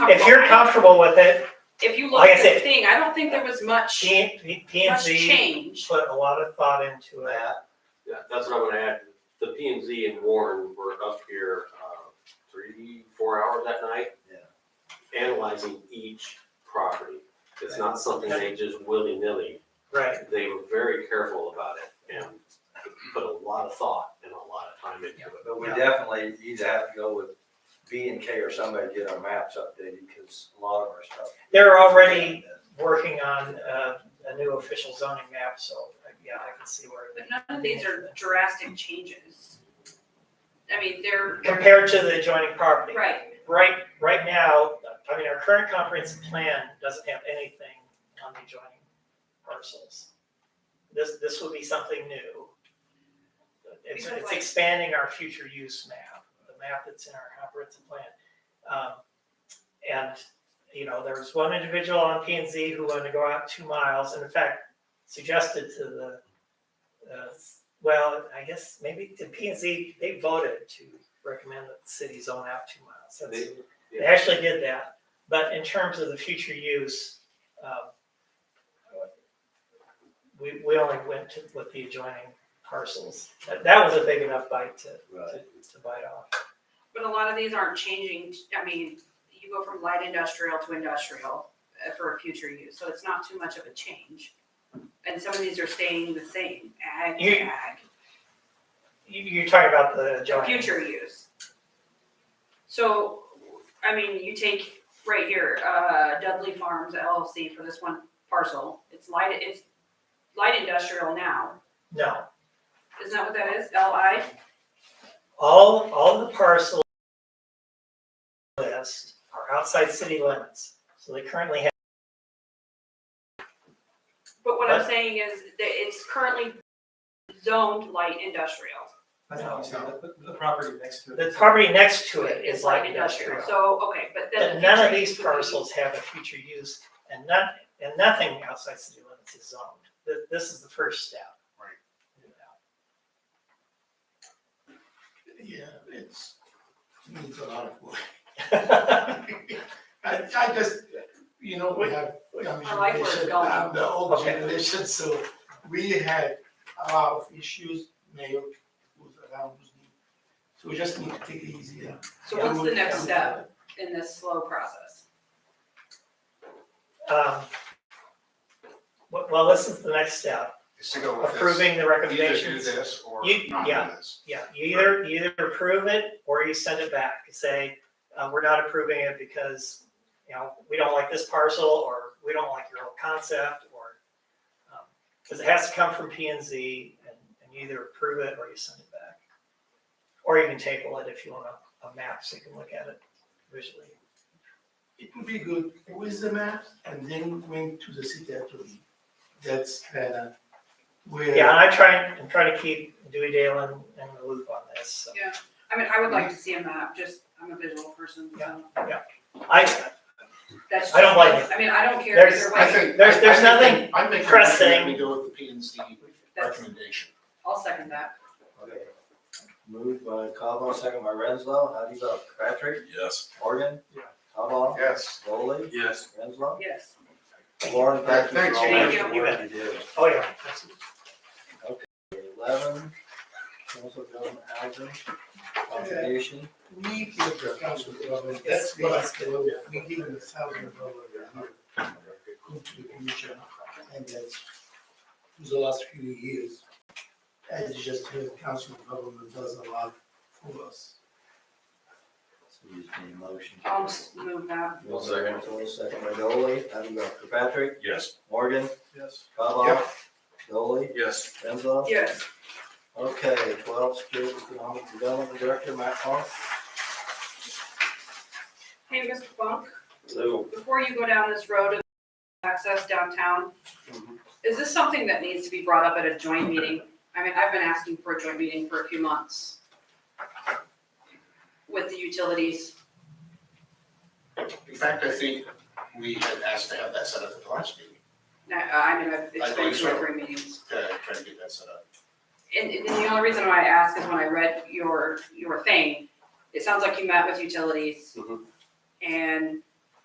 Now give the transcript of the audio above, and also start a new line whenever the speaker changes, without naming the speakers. If you're comfortable with it,
If you look
like I
at the
said-
thing, I don't think there was much,
P and
much
Z
change.
put a lot of thought into that.
Yeah, that's what I'm gonna add. The P and Z and Warren were up here, uh, three, four hours that night. Analyzing each property. It's not something they just willy-nilly.
Right.
They were very careful about it and put a lot of thought and a lot of time into it.
But we definitely either have to go with B and K or somebody to get our maps updated, because a lot of our stuff.
They're already working on uh, a new official zoning map, so uh, yeah, I can see where.
But none of these are drastic changes. I mean, they're, they're,
Compared to the adjoining property.
right,
Right, right now, I mean, our current comprehensive plan doesn't have anything on the adjoining parcels. This, this would be something new. It's,
Because
it's
like-
expanding our future use map, the map that's in our comprehensive plan. Um, And, you know, there was one individual on P and Z who wanted to go out two miles, and in fact, suggested to the, uh, well, I guess maybe the P and Z, they voted to recommend that the city zone out two miles. That's-
They-
They actually did that, but in terms of the future use, um, we, we only went to, with the adjoining parcels. That, that was a big enough bite to, to, to bite off.
but a lot of these aren't changing, I mean, you go from light industrial to industrial uh, for a future use, so it's not too much of a change. And some of these are staying the same, ag,
You-
ag.
You, you're talking about the
for
adjoining.
future use. So, I mean, you take right here, uh, Dudley Farms LLC for this one parcel, it's light, it's light industrial now,
No,
isn't that what that is, LI?
all, all the parcels list are outside city limits, so they currently have
But what I'm
What?
saying is that it's currently zoned light industrial.
That's not what I'm saying, the, the property next to it.
The property next to it is light industrial.
So, okay, but then.
But none of
future
these
use would be-
parcels have a future use and not, and nothing outside city limits is zoned. This, this is the first step.
Yeah, it's, to me, it's a lot of work.
Right.
I, I just, you know, we have young
I like where it's
generation,
going.
I'm the old
Okay.
generation, so we had a lot of issues, mayor was around, was new. So we just need to take it easy. yeah.
So what's the next step in this slow process?
Um, Well, well, this is the next step,
is to go with this.
approving the
Either do
recommendations.
this or
You-
not
yeah.
do this.
Yeah, you either, you either approve it or you send it back and say, uh, we're not approving it because, you know, we don't like this parcel or we don't like your whole concept or, because it has to come from P and Z and and you either approve it or you send it back. Or you can table it if you want a, a map so you can look at it visually.
It would be good with the maps and then went to the city attorney. That's kind of where.
Yeah, and I try, I'm trying to keep Dewey Dale in, in the loop on this, so.
I mean, I would like to see a map, just, I'm a visual person, so
I,
that's.
I don't
just-
like
I mean, I don't care
There's-
either way.
I think.
There's- there's
I- I think
nothing
I'm making a motion
pressing.
that we go with the P and Z
That's-
recommendation.
I'll second that.
Okay. Moved by Cobal, second by Renslow, how do you vote? Patrick? Yes. Morgan?
Yeah.
Cobal?
Yes.
Foley?
Yes.
Renslow?
Yes.
Lauren, thank you
Thanks,
for all
Jane.
the work you do.
oh yeah,
Eleven, council government housing contribution.
We give the council dollars, that's what I said, we give them a thousand dollars a year. Go to the commission, and that's for the last few years. As you just heard, council government does a lot for us.
So you just need a motion.
I'll just move that.
One second.
Foley, Second by Dolly, how do you vote? Patrick?
Yes.
Morgan?
Yes.
Cobal?
Yep.
Dolly?
Yes.
Renslow?
Yes.
Okay, twelve, Security Economic Development Director, Matt Clark.
Hey, Mr. Funk,
So,
before you go down this road of access downtown,
Mm-hmm.
is this something that needs to be brought up at a joint meeting? I mean, I've been asking for a joint meeting for a few months with the utilities.
In fact, I think we had asked to have that set up at the last meeting,
Now, uh, I mean, I've it's been
believe
two or
so.
three meetings.
to try to get that set up.
And, and the only reason why I ask is when I
Mm-hmm.
read your, your thing, it sounds like you met with utilities.
Mhm.
And